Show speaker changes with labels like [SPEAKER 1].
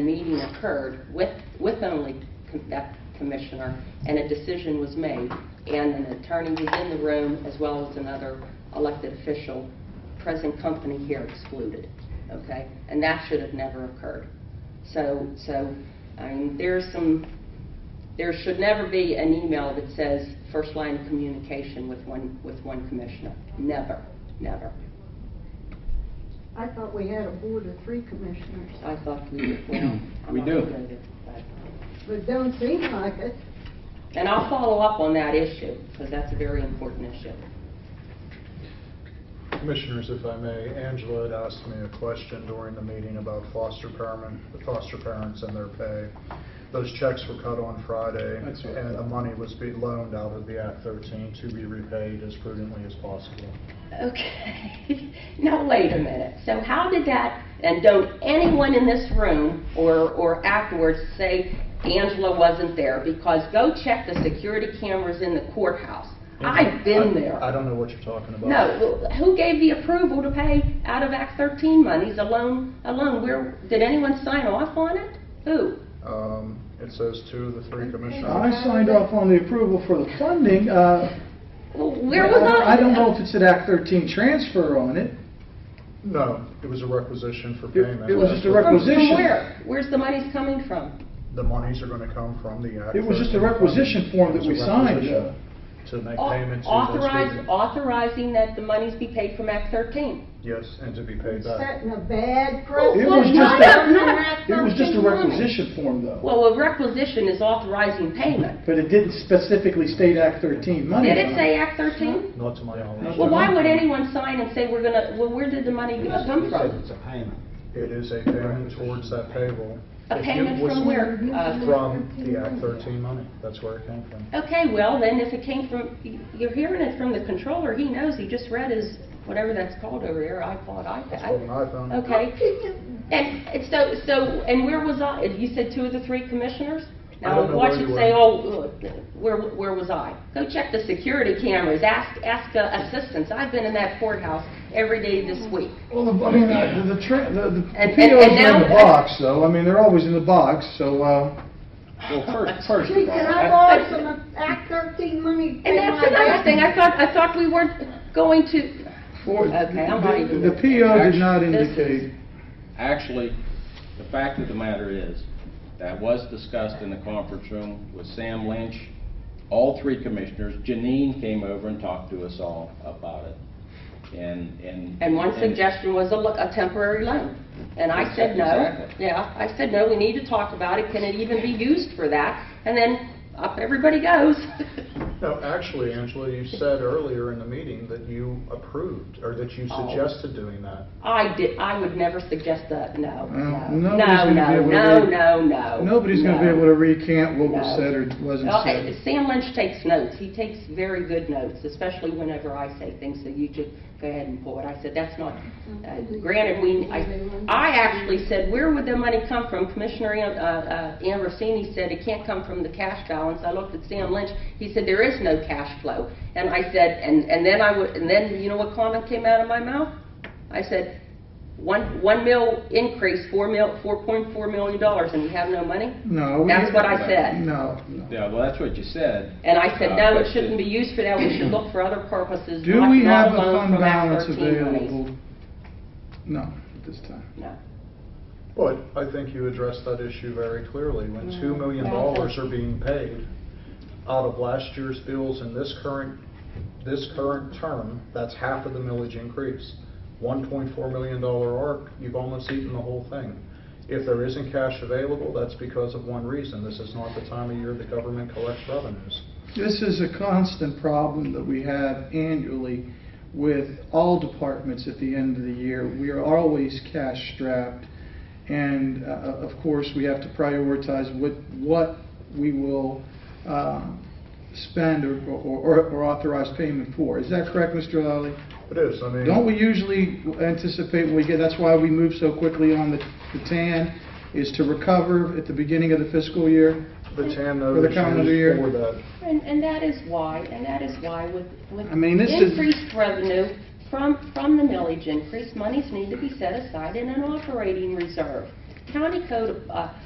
[SPEAKER 1] meeting occurred with, with only com- that commissioner, and a decision was made, and an attorney was in the room, as well as another elected official, present company here excluded, okay? And that should have never occurred. So, so, I mean, there's some, there should never be an email that says first line of communication with one, with one commissioner. Never, never.
[SPEAKER 2] I thought we had a board of three commissioners,
[SPEAKER 1] I thought we, well, I'm
[SPEAKER 3] We
[SPEAKER 1] not gonna
[SPEAKER 3] do.
[SPEAKER 1] go there, but-
[SPEAKER 2] but it don't seem like it.
[SPEAKER 1] And I'll follow up on that issue, because that's a very important issue.
[SPEAKER 4] Commissioners, if I may, Angela had asked me a question during the meeting about foster parent, the foster parents and their pay. Those checks were cut on Friday,
[SPEAKER 3] That's right.
[SPEAKER 4] and the money was being loaned out of the Act 13 to be repaid as prudently as possible.
[SPEAKER 1] Okay, now wait a minute. So how did that, and don't anyone in this room or, or afterwards say Angela wasn't there, because go check the security cameras in the courthouse. I've been
[SPEAKER 4] I-
[SPEAKER 1] there.
[SPEAKER 4] I don't know what you're talking about.
[SPEAKER 1] No, well, who gave the approval to pay out of Act 13 monies alone, alone? Where, did anyone sign off on it? Who?
[SPEAKER 4] Um, It says two of the three commissioners.
[SPEAKER 3] I signed off on the approval for the funding. uh,
[SPEAKER 1] Well, Where was I?
[SPEAKER 3] I don't know if it's an Act 13 transfer on it.
[SPEAKER 4] No, it was a requisition for
[SPEAKER 3] It-
[SPEAKER 4] payment.
[SPEAKER 3] it was just a
[SPEAKER 1] From- From
[SPEAKER 3] requisition.
[SPEAKER 1] where? Where's the monies coming from?
[SPEAKER 4] The monies are going to come from the Act 13.
[SPEAKER 3] It was just a requisition form that we signed, uh,
[SPEAKER 4] To make payment to those
[SPEAKER 1] Authorize,
[SPEAKER 4] people.
[SPEAKER 1] authorizing that the monies be paid from Act 13.
[SPEAKER 4] Yes, and to be paid back.
[SPEAKER 2] Setting a bad
[SPEAKER 3] It
[SPEAKER 2] precedent.
[SPEAKER 3] was
[SPEAKER 1] Well,
[SPEAKER 3] just
[SPEAKER 1] no,
[SPEAKER 3] a,
[SPEAKER 1] no, no.
[SPEAKER 3] it was just a requisition form, though.
[SPEAKER 1] Well, a requisition is authorizing payment.
[SPEAKER 3] But it didn't specifically state Act 13 money.
[SPEAKER 1] Did
[SPEAKER 3] on
[SPEAKER 1] it say Act 13?
[SPEAKER 4] Not to my knowledge.
[SPEAKER 3] Not
[SPEAKER 1] Well, why would anyone sign and say we're gonna, well, where did the money come from?
[SPEAKER 5] It's a payment.
[SPEAKER 4] It is a payment towards that payroll.
[SPEAKER 1] A payment from where? Uh,
[SPEAKER 4] From the Act 13 money, that's where it came from.
[SPEAKER 1] Okay, well, then if it came from, you're hearing it from the controller, he knows, he just read his, whatever that's called over there, iPod,
[SPEAKER 4] It's called an
[SPEAKER 1] iPad.
[SPEAKER 4] iPhone.
[SPEAKER 1] Okay, and and so, so, and where was I? You said two of the three commissioners?
[SPEAKER 4] I
[SPEAKER 1] Now,
[SPEAKER 4] don't know
[SPEAKER 1] watch
[SPEAKER 4] where
[SPEAKER 1] it
[SPEAKER 4] you
[SPEAKER 1] say,
[SPEAKER 4] were.
[SPEAKER 1] oh, uh, where, where was I? Go check the security cameras, ask, ask the assistants, I've been in that courthouse every day this week.
[SPEAKER 3] Well, the- I mean, uh, the, the tra- the the
[SPEAKER 1] And- and- and
[SPEAKER 3] POs are in the
[SPEAKER 1] now-
[SPEAKER 3] box, though. I mean, they're always in the box, so, uh,
[SPEAKER 5] Well, first, first
[SPEAKER 2] Gee,
[SPEAKER 5] of
[SPEAKER 2] Can
[SPEAKER 5] all,
[SPEAKER 2] I
[SPEAKER 5] I-
[SPEAKER 2] borrow some Act thirteen money?
[SPEAKER 1] And that's another thing, I thought, I thought we weren't going to,
[SPEAKER 3] for-
[SPEAKER 1] Okay, I'm not
[SPEAKER 3] the
[SPEAKER 1] even-
[SPEAKER 3] the PO did not
[SPEAKER 1] This is-
[SPEAKER 3] indicate.
[SPEAKER 5] actually, the fact of the matter is, that was discussed in the conference room with Sam Lynch, all three commissioners. Janine came over and talked to us all about it. And, and.
[SPEAKER 1] and one suggestion was a lo- a temporary loan. And I said, no.
[SPEAKER 5] Exactly.
[SPEAKER 1] Yeah, I said, no, we need to talk about it, can it even be used for that? And then up everybody goes.
[SPEAKER 4] No, actually, Angela, you said earlier in the meeting that you approved, or that you
[SPEAKER 1] Oh.
[SPEAKER 4] suggested doing that.
[SPEAKER 1] I did, I would never suggest that, no, no.
[SPEAKER 3] Well, nobody's gonna be able to
[SPEAKER 1] No,
[SPEAKER 3] read-
[SPEAKER 1] no, no, no.
[SPEAKER 3] Nobody's going to be
[SPEAKER 1] no.
[SPEAKER 3] able to recant what
[SPEAKER 1] No.
[SPEAKER 3] was said or wasn't
[SPEAKER 1] Well,
[SPEAKER 3] said.
[SPEAKER 1] I- Sam Lynch takes notes. He takes very good notes, especially whenever I say things that you could go ahead and pull it. I said, that's not, uh, granted, we, I, I actually said, where would the money come from? Commissioner Am- uh, uh, Ambrosini said it can't come from the cash balance. I looked at Sam Lynch. He said, there is no cash flow. And I said, and, and then I would, and then, you know what comment came out of my mouth? I said, one, one mil increase, four mil, four point four million dollars, and we have no money?
[SPEAKER 3] No. we-
[SPEAKER 1] That's what I said.
[SPEAKER 3] No, no.
[SPEAKER 5] Yeah, well, that's what you said.
[SPEAKER 1] And I said, no, it
[SPEAKER 5] Uh,
[SPEAKER 1] shouldn't be used for that, we should look for other purposes.
[SPEAKER 3] Do
[SPEAKER 1] not-
[SPEAKER 3] we
[SPEAKER 1] not
[SPEAKER 3] have a
[SPEAKER 1] loan
[SPEAKER 3] fund
[SPEAKER 1] from Act
[SPEAKER 3] balance
[SPEAKER 1] 13 monies."
[SPEAKER 3] available? No, at this time.
[SPEAKER 1] No.
[SPEAKER 4] But I think you addressed that issue very clearly. When $2 million are being paid out of last year's bills in this current, this current term, that's half of the millage increase. $1.4 million arc, you've almost eaten the whole thing. If there isn't cash available, that's because of one reason. This is not the time of year the government collects revenues.
[SPEAKER 3] This is a constant problem that we have annually with all departments at the end of the year. We are always cash strapped, and uh, of course, we have to prioritize what, what we will uh, spend or- or or authorize payment for. Is that correct, Mr. Lally?
[SPEAKER 4] It is, I mean.
[SPEAKER 3] Don't we usually anticipate when we get, that's why we move so quickly on the the TAN, is to recover at the beginning of the fiscal year?
[SPEAKER 4] The TAN
[SPEAKER 3] For the
[SPEAKER 4] notice
[SPEAKER 3] calendar year.
[SPEAKER 4] is for that.
[SPEAKER 1] And, and that is why, and that is why with, with
[SPEAKER 3] I mean, this is-
[SPEAKER 1] increased revenue from, from the millage increase, monies need to be set aside in an operating reserve. county code, uh,